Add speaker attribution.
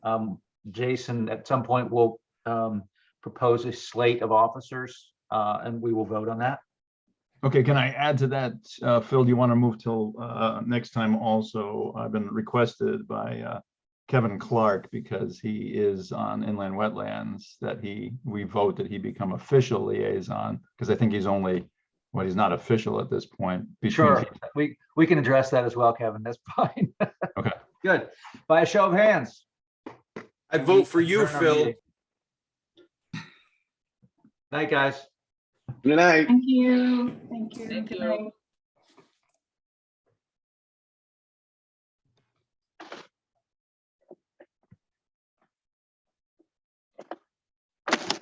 Speaker 1: Um, Jason, at some point, will um propose a slate of officers, uh, and we will vote on that.
Speaker 2: Okay, can I add to that, uh, Phil, do you want to move till, uh, next time also? I've been requested by, uh, Kevin Clark because he is on inland wetlands that he, we vote that he become official liaison. Because I think he's only, well, he's not official at this point. between-
Speaker 1: Sure, we, we can address that as well, Kevin. That's fine.
Speaker 2: Okay.
Speaker 1: Good. By a show of hands.
Speaker 3: I vote for you,
Speaker 1: Adjourn our
Speaker 3: Phil.
Speaker 1: meeting. Night, guys.
Speaker 4: Good night.
Speaker 5: Thank you, thank you. Good night.